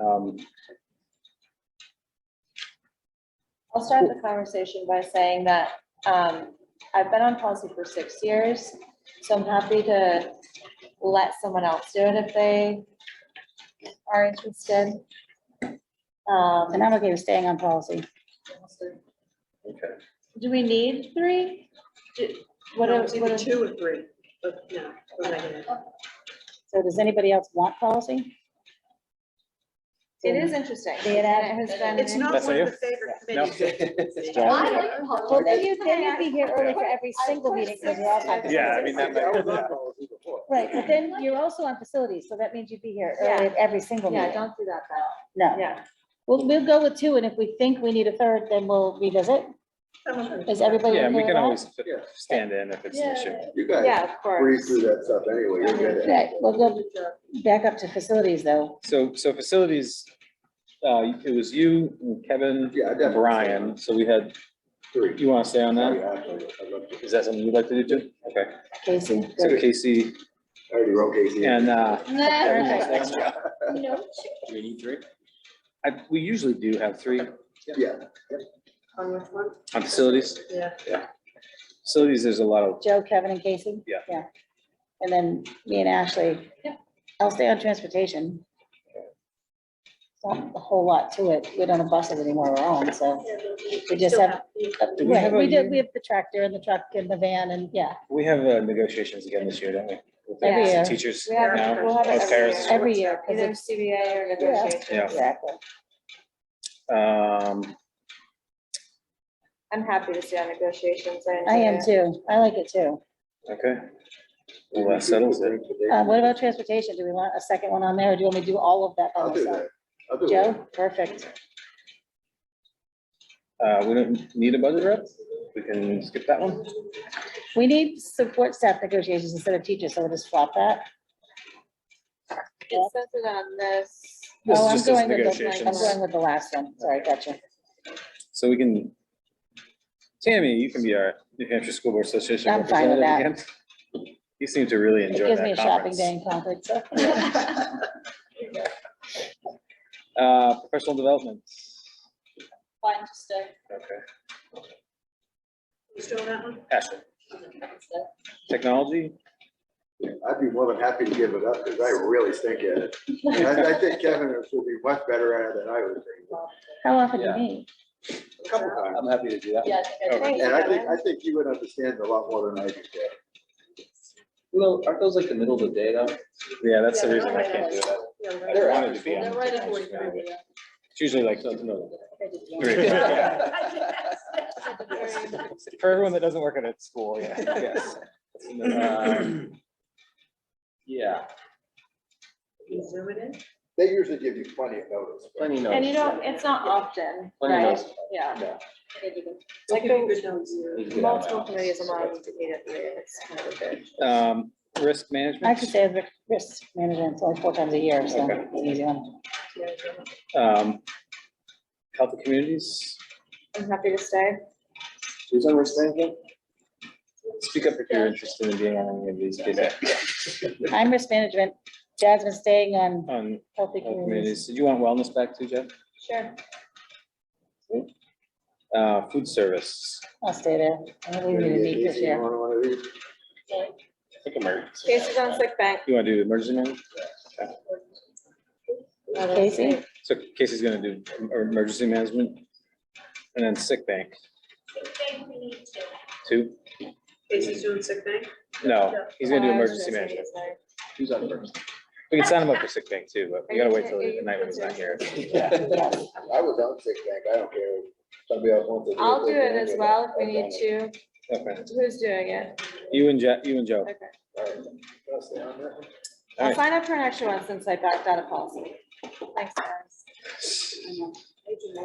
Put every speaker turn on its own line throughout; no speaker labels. Um,
I'll start the conversation by saying that um, I've been on policy for six years, so I'm happy to let someone else do it if they are interested. Um,
And I'm okay with staying on policy.
Okay,
Do we need three? Do- What
No,
do-
it's
what
Either
do-
two or three, but no, we're not gonna.
So does anybody else want policy?
It is interesting.
Be it added.
It has been-
It's not
That's
one of
you?
the favorite
No.
committees.
I like policy.
Well, then you, then you'd be here early for every
I
single
put
meeting because you're all talking.
Yeah, I mean, that might.
Right, but then you're also on facilities, so that means you'd be here early
Yeah.
at every single
Yeah,
meeting.
don't do that, though.
No,
Yeah.
we'll, we'll go with two, and if we think we need a third, then we'll revisit. Is everybody
Yeah,
okay
and we
with
can always
that?
fit- stand in if it's an issue.
You guys
Yeah, of course.
breeze through that stuff anyway, you're good at it.
Right, we'll go back up to facilities, though.
So, so facilities, uh, it was you, Kevin,
Yeah, I definitely.
Brian, so we had,
Three.
you want to stay on
Oh,
that?
yeah, absolutely. I'd love to.
Is that something you'd like to do too? Okay,
Casey?
so Casey
I already wrote Casey.
and, uh,
Perfect.
Do we need three? I, we usually do have three on
Yeah,
On which one?
facilities.
Yeah.
Facilities, there's a lot of,
Joe, Kevin, and Casey?
Yeah.
Yeah. And then me and Ashley.
Yep.
I'll stay on transportation. It's Not a whole lot to it. We don't have buses anymore, we're on, so. We just have-
Do we have
Right, we
a
did,
union?
we have the tractor and the truck and the van and, yeah,
we have uh, negotiations again this year, don't we? With the
Every year.
Teachers
We have-
now,
we'll have it
as
every
parents.
year.
every year. 'cause
Either
it's-
CBA or negotiation.
Yeah.
Exactly.
Um,
I'm happy to stay on negotiations.
I
enjoy
am
it.
too. I like it too.
okay. Well, that settles it.
Uh, what about transportation? Do we want a second one on there or do you want me to do all of that by
I'll do
myself?
that. I'll do that.
Joe, perfect.
Uh, we don't need a budget rep? We can skip that one?
We need support staff negotiations instead of teachers, so we'll just swap that.
It says it on this.
This
Oh,
is
I'm
just as
going with the- I'm
negotiations.
going with the last one. Sorry, gotcha.
So we can, Tammy, you can be our New Hampshire School Board Association
I'm fine with
representative again. You seem to really
It
enjoy
gives me a
that
shopping
conference.
day in Concord, so.
Uh, professional development.
Fine, just stay.
Okay.
You still on that one?
Ashley, technology?
I'd be more than happy to give it up because I really stink at it. And I, I think Kevin will be much better at it than I would think.
How often do you
Yeah.
meet?
A couple times.
I'm happy to do that.
Yeah, I think I
Okay.
did.
And I think, I think you would understand a lot more than I do. Kevin.
Well, aren't those like the middle of the day though?
Yeah, that's the reason I can't do that.
Yeah,
I
right.
don't want it to be
They're
on.
right at forty-five.
It's usually like, Three. for everyone that doesn't work at a school, yeah, yes.
Um, Yeah,
You zoom it in?
They usually give you plenty of notice. but-
plenty notice.
And you don't, it's not often,
Plenty
right?
notice.
Yeah.
Yeah.
They'll
Like
give you
the
good notes.
You can do that now.
multiple committees a month, you need it, it's kind of good.
Um, risk management?
I could say I've risk management, it's only four times a year, so
Okay.
it's an easy one.
Um, health and communities,
I'm happy to stay.
Who's on risk management?
speak up if you're interested in being on any of these cases.
I'm risk management. Jasmine's staying on
On
healthy
health
communities.
Um, communities, did you want wellness back too, Jeff?
Sure.
Uh, food service,
I'll stay there. I don't think we need to meet this
Easy, you
year.
want one of these?
I think emergency.
Casey's on sick bank.
You wanna do emergency management?
Casey,
So Casey's gonna do em- emergency management and then sick bank, two?
Casey's doing sick thing?
No, he's gonna do
Uh, I was
emergency
gonna say
management.
he's there.
Who's on first?
We can sign him up for sick bank too, but we gotta wait till
Are you-
the night when he's not here.
Yeah.
I was on sick bank, I don't care. if Somebody else wants to.
I'll
they
do it as well if we
I've done
need
it.
to.
Okay,
Who's doing it?
you and Je, you and Joe.
Okay.
All right. Can I stay on that one?
I'll
Alright.
sign up for an extra one since I backed out of policy. Thanks, guys.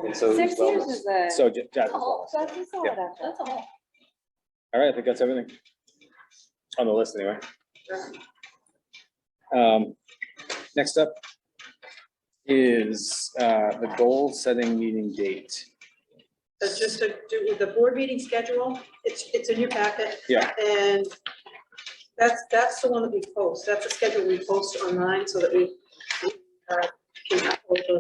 And so who's
Six years
wellness?
is a.
So Je- Jeff,
Oh,
all
That's a solid effort.
That's all.
right, I think that's everything. On the list anyway. Um, next up is, uh, the goal setting meeting date.
That's just to do the board meeting schedule. It's, it's in your packet.
Yeah.
And that's, that's the one that we post. That's the schedule we post online so that we uh, can upload those